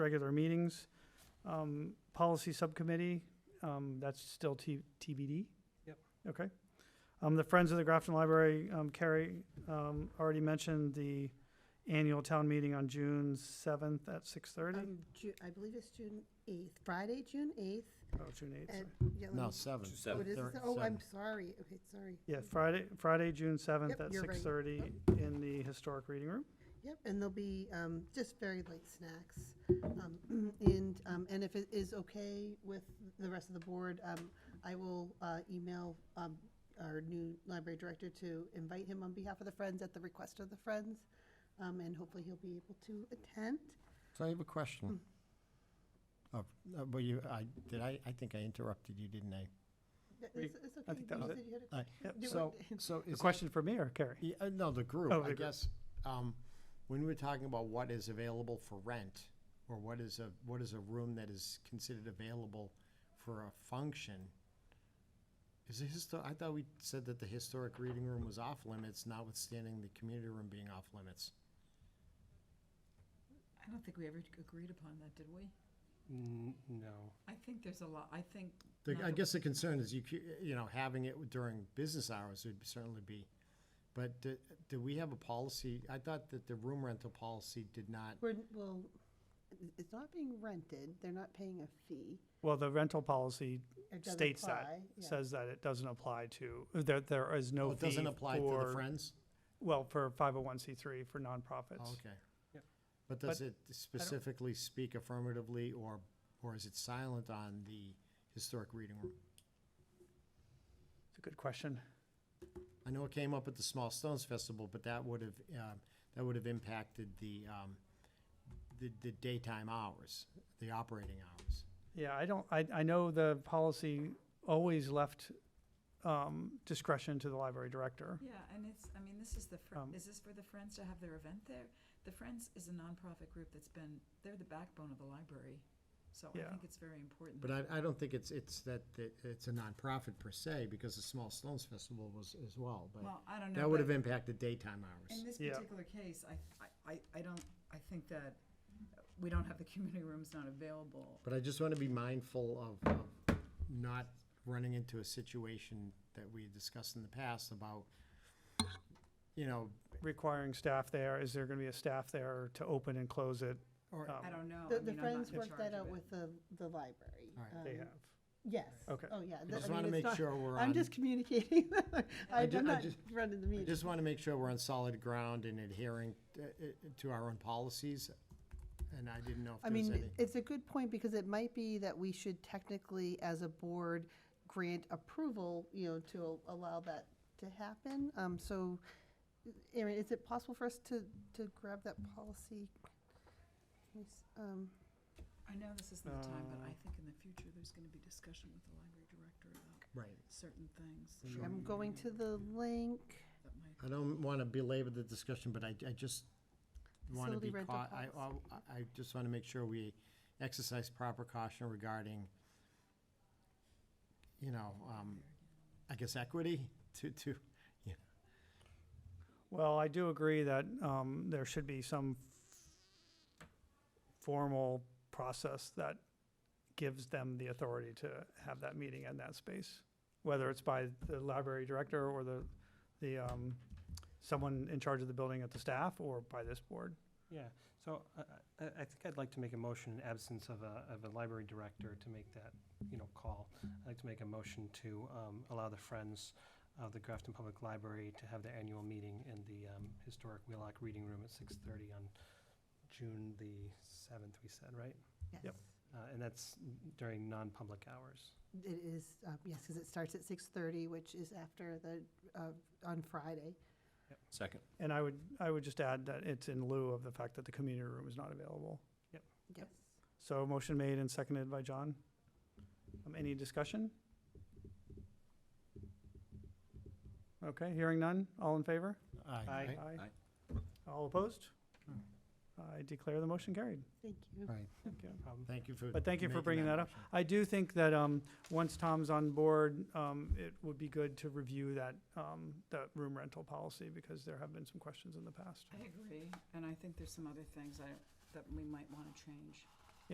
regular meetings. Um, Policy Subcommittee, um, that's still T- TBD? Yep. Okay. Um, The Friends of the Grafton Library, um, Carrie um, already mentioned the annual town meeting on June 7th at 6:30? Um, Ju- I believe it's June 8th, Friday, June 8th. Oh, June 8th, sorry. at- yeah, let No, me- seven. Two What seven. is Thir- this? Oh, I'm seven. sorry. Okay, sorry. Yeah, Friday, Friday, June 7th Yep, at you're right. 6:30 in the Historic Reading Room. Yep, and there'll be um, just very light snacks. Um, And, um, and if it is okay with the rest of the board, um, I will uh, email um, our new library director to invite him on behalf of the Friends at the request of the Friends. um, And hopefully he'll be able to attend. So I have a question. Hmm. Oh, uh, but you, I, did I, I think I interrupted you, didn't I? That- We- It's it's okay. I think that you was said you had a- I- Do So, it. so A is, question for me or Carrie? yeah, uh, no, the group, Oh, the I group. guess, um, when we were talking about what is available for rent, or what is a, what is a room that is considered available for a function? Is the histo, I thought we said that the historic reading room was off limits, notwithstanding the community room being off limits. I don't think we ever agreed upon that, did we? N- No. I think there's a lot, I think. The, not I that- guess the concern is you, cou- you know, having it during business hours would certainly be, but do, do we have a policy? I thought that the room rental policy did not, We're, well, it's not being rented. They're not paying a fee. Well, the rental policy It doesn't states that, apply, yeah. says that it doesn't apply to, that there is oh, no it fee doesn't apply to the for, Friends? well, for 501c3 for Oh, nonprofits. Okay. Yep. But does it specifically speak affirmatively or, or is it silent on the historic reading room? It's a good question. I know it came up at the Small Stones Festival, but that would have, um, that would have impacted the, um, the, the daytime hours, the operating hours. Yeah, I don't, I, I know the policy always left um, discretion to the library director. Yeah, and it's, I mean, this is the, fr- Um, is this for the Friends to have their event there? The Friends is a nonprofit group that's been, they're the backbone of the library. So I Yeah. think it's very important. But I, I don't think it's, it's that, that it's a nonprofit per se, because the Small Stones Festival was as well, but Well, I don't know. that would but- have impacted daytime hours. In this Yeah. particular case, I, I, I- I don't, I think that we don't have the community rooms not available. But I just want to be mindful of, of not running into a situation that we discussed in the past about, you know, Requiring staff there, is there going to be a staff there to open and close it? or, Um, I don't know. I The, the mean, I'm not Friends in worked charge that of out it. with the, the library. All right. They Um, have. Yes. Okay. Oh, yeah. I The- just mean, want to it's make not- sure we're on. I'm just communicating. I I'm ju- I not just- running the I meeting. just want to make sure we're on solid ground and adhering uh, uh, to our own policies, and I didn't know I if there was mean, any. it- it's a good point because it might be that we should technically, as a board, grant approval, you know, to al- allow that to happen. Um, so, Erin, is it possible for us to, to grab that policy? Yes, Um, I know this isn't the time, but I Uh, think in the future, there's gonna be discussion with the library director about Right. certain things. Sure. I'm going to the link. That might I don't want to belabor the discussion, but I, I just want to Facility be rental caught, I, I I just want to make sure we exercise proper caution regarding, you know, um, I guess equity to, to, Well, I do agree that um, there should be some formal process that gives them the authority to have that meeting in that space, whether it's by the library director or the, the, um, someone in charge of the building at the staff or by this board. Yeah, so I, I, I think I'd like to make a motion in absence of a, of a library director to make that, you know, call. I'd like to make a motion to, um, allow the Friends of the Grafton Public Library to have their annual meeting in the, um, historic Wheelock Reading Room at six thirty on June the seventh, we said, right? Yep. Yes. Uh, and that's during non-public hours. It is, uh, yes, because it starts at 6:30, which is after the, uh, on Friday. Second. And I would, I would just add that it's in lieu of the fact that the community room is not available. Yes. So motion made and seconded by John. Um, Any discussion? Okay, hearing none. All in favor? Aye. All opposed? I declare the motion carried. Thank you. All right, Thank you. Um, thank you for. But thank you for making bringing that up. motion. I do think that um, once Tom's on board, um, it would be good to review that, um, that room rental policy because there have been some questions in the past. I agree, and I think there's some other things I, that we might want to change.